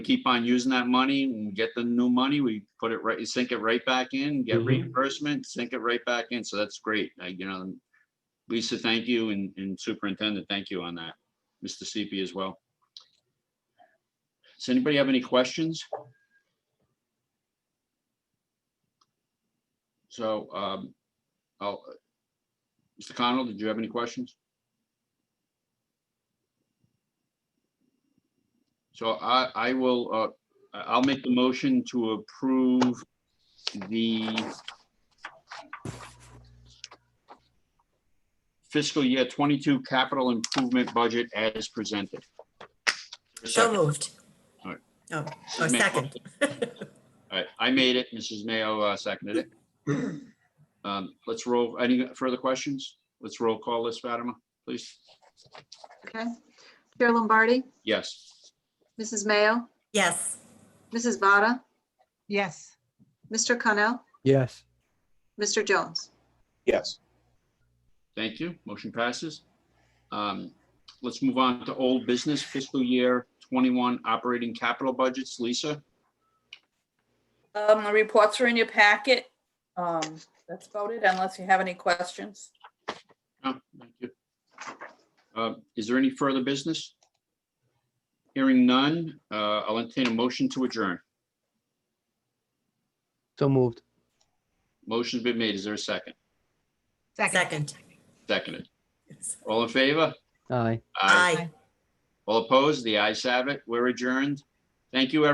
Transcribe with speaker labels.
Speaker 1: keep on using that money, when we get the new money, we put it right, sink it right back in, get
Speaker 2: Mhm.
Speaker 1: reimbursement, sink it right back in, so that's great, I, you know. Lisa, thank you, and, and Superintendent, thank you on that, Mr. CP as well. Does anybody have any questions? So, um, oh, Mr. Connell, did you have any questions? So I, I will, uh, I- I'll make the motion to approve the fiscal year twenty-two capital improvement budget as presented.
Speaker 3: So
Speaker 1: Second.
Speaker 3: moved.
Speaker 1: All right.
Speaker 3: Oh, oh,
Speaker 1: May-
Speaker 3: second.
Speaker 1: All right, I made it. Mrs. Mayo uh, seconded it. Um, Let's roll. Any further questions? Let's roll call this, Fatima, please.
Speaker 4: Okay. Chair Lombardi,
Speaker 1: Yes.
Speaker 4: Mrs. Mayo,
Speaker 3: Yes,
Speaker 4: Mrs. Vada,
Speaker 5: Yes,
Speaker 4: Mr. Connell,
Speaker 2: Yes,
Speaker 4: Mr. Jones.
Speaker 6: Yes,
Speaker 1: Thank you. Motion passes. Um, Let's move on to old business fiscal year 21 operating capital budgets. Lisa?
Speaker 7: Um, the reports are in your packet. Um, that's about it unless you have any questions.
Speaker 1: No, Oh, thank you. Uh, Is there any further business? Hearing none, uh, I'll entertain a motion to adjourn.
Speaker 2: so moved.
Speaker 1: Motion's been made. Is there a second?
Speaker 5: second.
Speaker 3: second.
Speaker 1: Seconded. All in favor?
Speaker 2: Aye.
Speaker 3: Aye.
Speaker 1: All opposed? The ayes have it. We're adjourned. Thank you, everyone.